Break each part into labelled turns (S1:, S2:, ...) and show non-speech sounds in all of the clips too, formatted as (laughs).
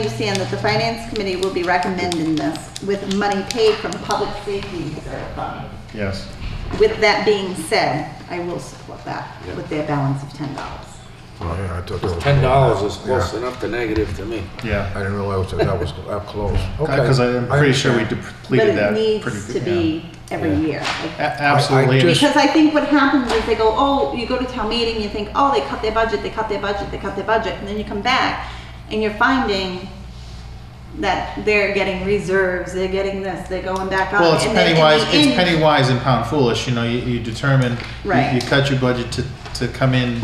S1: understand that the finance committee will be recommending this with money paid from public safety reserve fund.
S2: Yes.
S1: With that being said, I will support that with their balance of ten dollars.
S3: Oh, yeah, I thought that was.
S4: Ten dollars is close
S3: Yeah.
S4: enough to negative to me.
S2: Yeah.
S3: I didn't realize that that was
S2: (laughs)
S3: up close. Okay.
S2: Because I'm pretty sure we
S3: understand.
S1: But
S2: depleted
S1: it
S2: that.
S1: needs
S2: pretty-
S1: to
S2: yeah.
S1: be every
S2: Yeah.
S1: year.
S2: A-
S1: like-
S2: Absolutely.
S3: I- I
S2: and-
S1: Because I think what happens is they go, oh, you go to town meeting, you think, oh, they cut their budget, they cut their budget, they cut their budget, and then you come back and you're finding that they're getting reserves, they're getting this, they're going back up.
S2: Well, it's
S1: uh, and then in
S2: penny
S1: the
S2: wise, it's
S1: end-
S2: penny wise and pound foolish, you know, you, you determine, you-
S1: Right.
S2: you cut your budget to, to come in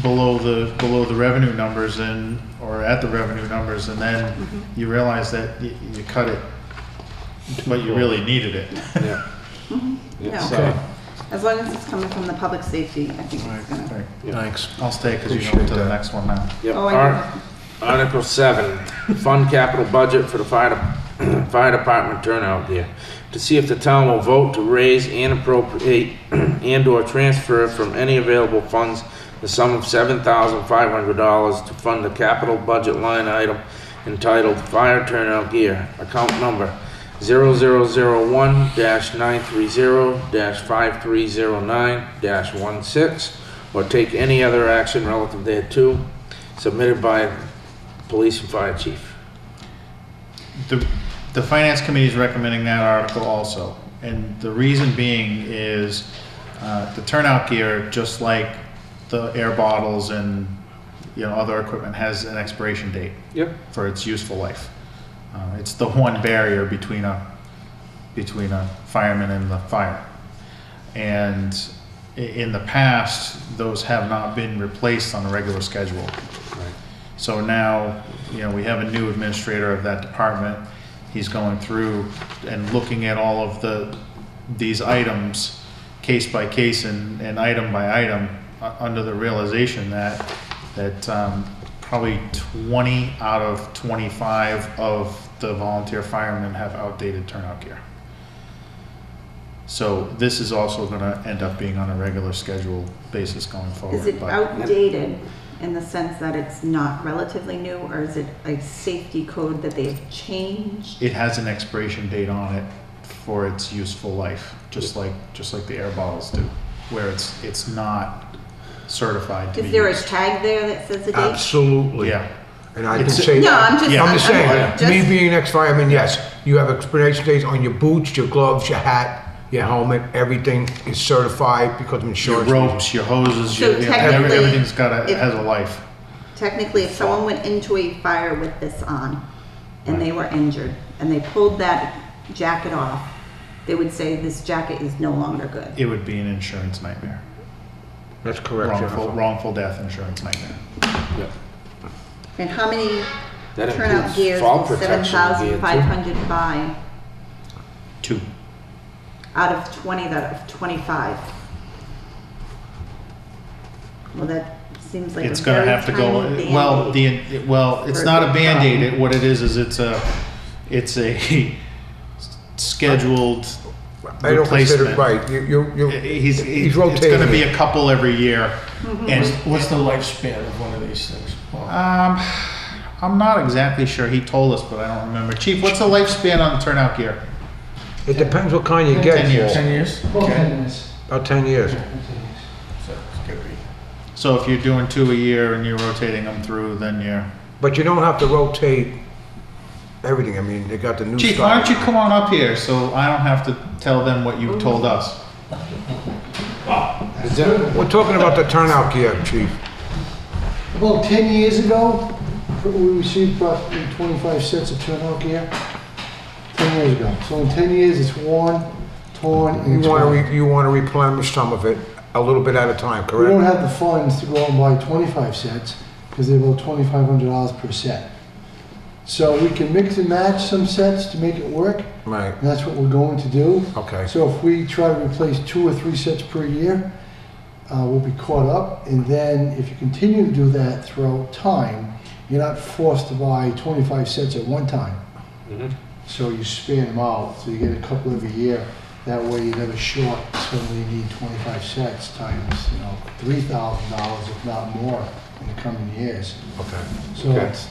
S2: below the, below the revenue numbers and, or at the revenue numbers, and then
S1: Mm-hmm.
S2: you realize that you, you cut it, but you really needed it.
S4: Yeah.
S1: No,
S2: (laughs) So,
S1: as long as it's coming from the public safety, I think it's gonna.
S3: Thanks.
S2: I'll stay, cause you know,
S3: Appreciate
S2: until the
S3: that.
S2: next one now.
S4: Yep.
S1: Oh, I
S4: Ar- Article seven, fund capital budget for the fire, de- (clears throat) fire department turnout gear. To see if the town will vote to raise and appropriate (clears throat) and or transfer from any available funds the sum of seven thousand five hundred dollars to fund the capital budget line item entitled Fire Turnout Gear, account number 0001-930-5309-16, or take any other action relative thereto, submitted by police and fire chief.
S2: The, the finance committee is recommending that article also, and the reason being is, uh, the turnout gear, just like the air bottles and, you know, other equipment, has an expiration date
S4: Yep.
S2: for its useful life. Uh, it's the one barrier between a, between a fireman and the fire. And i- in the past, those have not been replaced on a regular schedule. So now, you know, we have a new administrator of that department. He's going through and looking at all of the, these items, case by case and, and item by item, uh, under the realization that, that, um, probably twenty out of twenty-five of the volunteer firemen have outdated turnout gear. So this is also gonna end up being on a regular schedule basis going forward.
S1: Is it
S2: but-
S1: outdated in the sense that it's not relatively new, or is it a safety code that they've changed?
S2: it has an expiration date on it for its useful life, just like, just like the air bottles do, where it's, it's not certified to be
S1: Is there a
S2: used.
S1: tag there that says the date?
S3: Absolutely.
S2: Yeah,
S3: And I can
S2: It's-
S3: say.
S1: No, I'm just-
S2: Yeah.
S3: I'm just
S1: I'm-
S3: saying,
S1: I'm
S3: me
S1: just-
S3: being an ex-fireman, yes, you have expiration dates on your boots, your gloves, your hat, your helmet, everything is certified because of
S2: your
S3: insurance.
S2: ropes, your hoses,
S1: So
S2: your, you know, every-
S1: technically,
S2: everything's got a,
S1: if-
S2: it has a life.
S1: Technically, if someone went into a fire with this on, and they were injured, and they pulled that jacket off, they would say, this jacket is no longer good.
S2: It would be an insurance nightmare,
S3: That's correct,
S2: wrongful,
S3: Jennifer.
S2: wrongful death insurance nightmare.
S4: Yep.
S1: And how many
S4: That
S1: turnout
S4: includes
S1: gears
S4: fall
S1: will seven
S4: protection gear,
S1: thousand
S4: too.
S1: five hundred buy
S2: Two,
S1: out of twenty, that of twenty-five? Well, that seems like a
S2: it's gonna
S1: very
S2: have to go,
S1: tiny
S2: well,
S1: Band-Aid.
S2: the, it- well, it's
S1: For
S2: not a
S1: the
S2: Band-Aid,
S1: problem.
S2: It- what it is, is it's a, it's a (laughs) scheduled
S3: I don't consider it
S2: replacement.
S3: right. You, you, you,
S2: He's,
S3: He's
S2: he's it's going to
S3: rotating
S2: be
S3: it.
S2: a couple every year.
S5: What's,
S2: And
S5: what's the lifespan of one of these things? Well,
S2: um, I'm not exactly sure. He told us, but I don't remember. Chief, what's the lifespan on the turnout gear?
S3: it depends what kind you
S2: Ten years.
S3: get for.
S5: Ten years?
S2: Okay.
S3: About ten years.
S5: So it's gonna be.
S2: So if you're doing two a year and you're rotating them through, then you're.
S3: But you don't have to rotate everything. I mean, they got the new.
S2: Chief,
S3: style.
S2: why don't you come on up here so I don't have to tell them what you told us?
S4: Is that-
S3: We're talking about the turnout gear, chief.
S6: About 10 years ago, we received about 25 sets of turnout gear. 10 years ago. So in 10 years, it's worn, torn,
S3: You
S6: and it's
S3: want
S6: gone.
S3: to, you want to replenish some of it a little bit at a time,
S6: We don't
S3: correct?
S6: have the funds to go and buy 25 sets because they're about $2,500 per set. So we can mix and match some sets to make it work,
S3: Right,
S6: and that's what we're going to do.
S3: okay.
S6: So if we try to replace two or three sets per year, uh, we'll be caught up. And then if you continue to do that throughout time, you're not forced to buy 25 sets at one time.
S4: Mhm.
S6: So you span them out, so you get a couple every year. That way you're never short. Suddenly you need 25 sets times, you know, $3,000 if not more in the coming years.
S3: Okay.
S6: So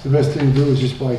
S6: the best thing to do is just buy